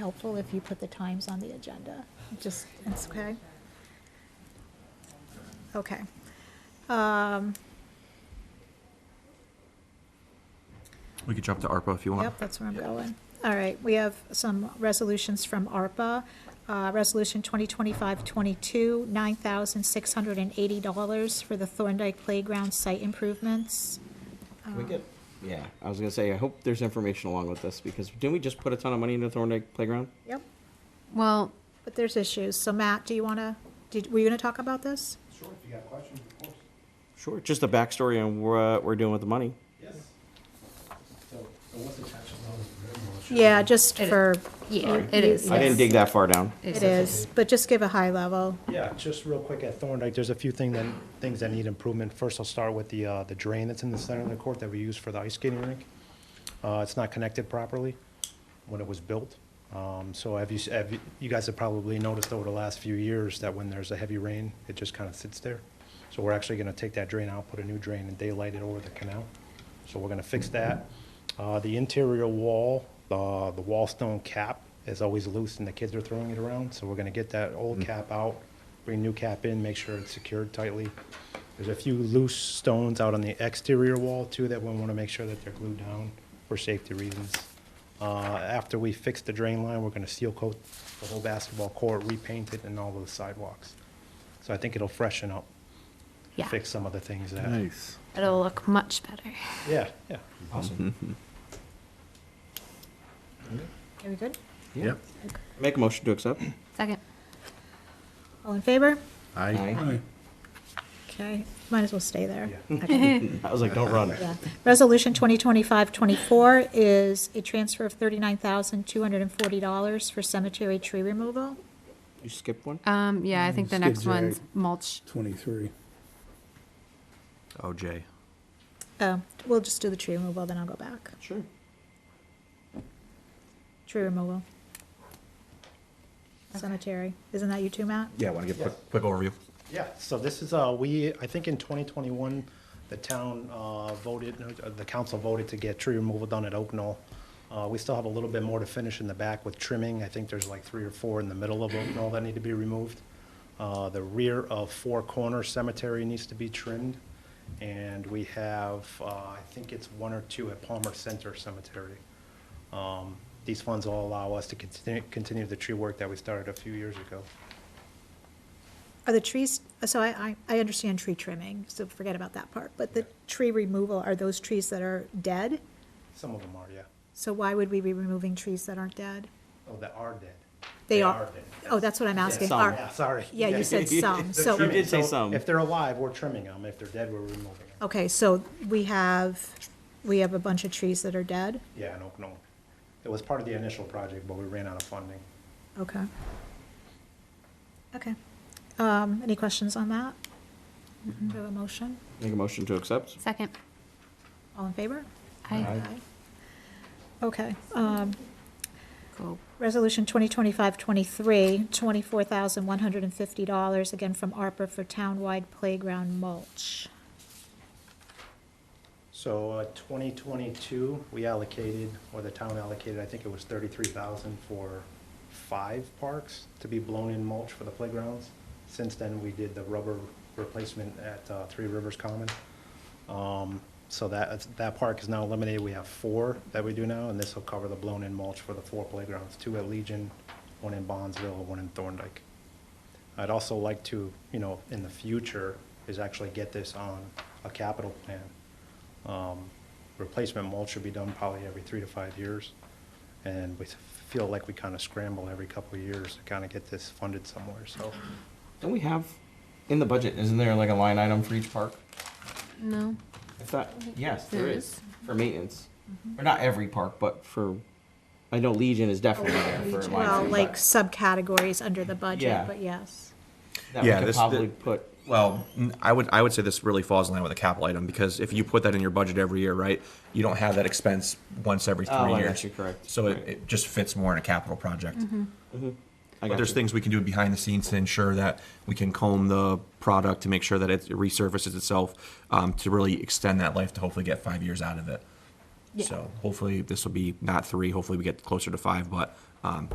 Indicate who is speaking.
Speaker 1: helpful if you put the times on the agenda, just, it's okay. Okay. Um,
Speaker 2: We could jump to ARPA if you want.
Speaker 1: Yep, that's where I'm going. All right, we have some resolutions from ARPA. Uh, Resolution 2025-22, $9,680 for the Thorndike Playground site improvements. Uh,
Speaker 3: Can we get? Oh. Yeah, I was gonna say. I hope there's information along with this because didn't we just put a ton of money into Thorndike Playground?
Speaker 1: Yep,
Speaker 4: Well,
Speaker 1: but there's issues. So Matt, do you want to, did, were you going to talk about this?
Speaker 5: Sure, if you got questions, of course.
Speaker 3: Sure. Just a backstory on what we're doing with the money.
Speaker 5: Yes. So, so what's attached to those?
Speaker 1: Yeah, just
Speaker 4: It-
Speaker 1: for,
Speaker 4: yeah, it is.
Speaker 3: I didn't
Speaker 1: Yes.
Speaker 3: dig that far down.
Speaker 1: it is, but just give a high level.
Speaker 5: Yeah, just real quick at Thorndike, there's a few thing that, things that need improvement. First, I'll start with the, uh, the drain that's in the center of the court that we use for the ice skating rink. Uh, it's not connected properly when it was built. Um, so have you, s- have you, you guys have probably noticed over the last few years that when there's a heavy rain, it just kind of sits there. So we're actually gonna take that drain out, put a new drain and daylight it over the canal. So we're gonna fix that. Uh, the interior wall, uh, the wall stone cap is always loose and the kids are throwing it around. So we're gonna get that
Speaker 3: Mm.
Speaker 5: old cap out, bring new cap in, make sure it's secured tightly. There's a few loose stones out on the exterior wall too that we wanna make sure that they're glued down for safety reasons. Uh, after we fix the drain line, we're gonna seal coat the whole basketball court, repaint it and all those sidewalks. So I think it'll freshen up,
Speaker 4: Yeah,
Speaker 5: fix some of the things that.
Speaker 6: Nice.
Speaker 4: it'll look much better.
Speaker 5: Yeah, yeah. Awesome.
Speaker 1: Are we good?
Speaker 6: Yep.
Speaker 3: Make a motion to accept.
Speaker 4: Second.
Speaker 1: All in favor?
Speaker 6: I
Speaker 1: Okay, might as well stay there.
Speaker 3: I was like, don't run.
Speaker 1: Yeah. Resolution 2025-24 is a transfer of $39,240 for cemetery tree removal.
Speaker 3: You skipped one.
Speaker 4: Um, yeah,
Speaker 1: Mm,
Speaker 4: I think the
Speaker 6: Skid
Speaker 4: next one's
Speaker 6: steer.
Speaker 4: mulch.
Speaker 6: twenty-three.
Speaker 2: Oh, Jay.
Speaker 1: Oh, We'll just do the tree removal, then I'll go back.
Speaker 3: Sure.
Speaker 1: Tree removal. Cemetery. Isn't that you too, Matt?
Speaker 2: Yeah, want to give a quick, quick overview.
Speaker 5: Yeah, so this is, uh, we, I think in 2021, the town uh, voted, uh, the council voted to get tree removal done at Oak Knoll. Uh, We still have a little bit more to finish in the back with trimming. I think there's like three or four in the middle of Oak Knoll that need to be removed. Uh, The rear of Four Corner Cemetery needs to be trimmed. And we have, uh, I think it's one or two at Palmer Center Cemetery. Um, These funds will allow us to continue, continue the tree work that we started a few years ago.
Speaker 1: Are the trees, so I, I, I understand tree trimming, so forget about that part. But the tree removal, are those trees that are dead?
Speaker 5: Some of them are, yeah.
Speaker 1: So why would we be removing trees that aren't dead?
Speaker 5: Oh, that are dead.
Speaker 1: They are,
Speaker 5: dead.
Speaker 1: oh, that's what I'm asking.
Speaker 3: some,
Speaker 1: Are-
Speaker 5: Yeah, sorry.
Speaker 1: Yeah, you said some, so.
Speaker 3: You did say some.
Speaker 5: If they're alive, we're trimming them. If they're dead, we're removing them.
Speaker 1: Okay, so we have, we have a bunch of trees that are dead?
Speaker 5: Yeah, in Oak Knoll. It was part of the initial project, but we ran out of funding.
Speaker 1: Okay. Okay. Um, any questions on that? Do I have a motion?
Speaker 3: Make a motion to accept.
Speaker 4: Second.
Speaker 1: All in favor?
Speaker 4: I
Speaker 1: Okay, um,
Speaker 4: go.
Speaker 1: resolution 2025-23, $24,150, again from ARPA for townwide playground mulch.
Speaker 5: So uh, 2022, we allocated, or the town allocated, I think it was 33,000 for five parks to be blown in mulch for the playgrounds. Since then, we did the rubber replacement at uh, Three Rivers Common. Um, So that, that park is now eliminated. We have four that we do now, and this will cover the blown-in mulch for the four playgrounds, two at Legion, one in Bondsville, one in Thorndike. I'd also like to, you know, in the future, is actually get this on a capital plan. Um, Replacement mulch should be done probably every three to five years, and we feel like we kind of scramble every couple of years to kind of get this funded somewhere, so.
Speaker 3: Don't we have in the budget? Isn't there like a line item for each park?
Speaker 4: No.
Speaker 3: I thought yes, there
Speaker 4: There
Speaker 3: is.
Speaker 4: is.
Speaker 3: for maintenance,
Speaker 1: Mm-hmm.
Speaker 3: or not every park, but for. I know Legion is definitely there for a line.
Speaker 1: Well,
Speaker 3: item,
Speaker 1: like
Speaker 3: but
Speaker 1: subcategories under the
Speaker 3: Yeah.
Speaker 1: budget, but yes.
Speaker 3: that we
Speaker 2: Yeah,
Speaker 3: could
Speaker 2: this-
Speaker 3: probably
Speaker 2: the-
Speaker 3: put.
Speaker 2: Well, n- I would, I would say this really falls in line with a capital item because if you put that in your budget every year, right, you don't have that expense once every three
Speaker 3: Oh, I got
Speaker 2: years.
Speaker 3: you, correct.
Speaker 2: So
Speaker 3: Right.
Speaker 2: it, it just fits more in a capital project.
Speaker 3: I
Speaker 2: But
Speaker 3: got
Speaker 2: there's
Speaker 3: you.
Speaker 2: things we can do behind the scenes to ensure that we can comb the product to make sure that it resurfaces itself um, to really extend that life to hopefully get five years out of it.
Speaker 4: Yeah.
Speaker 2: So hopefully this will be not three. Hopefully we get closer to five, but um,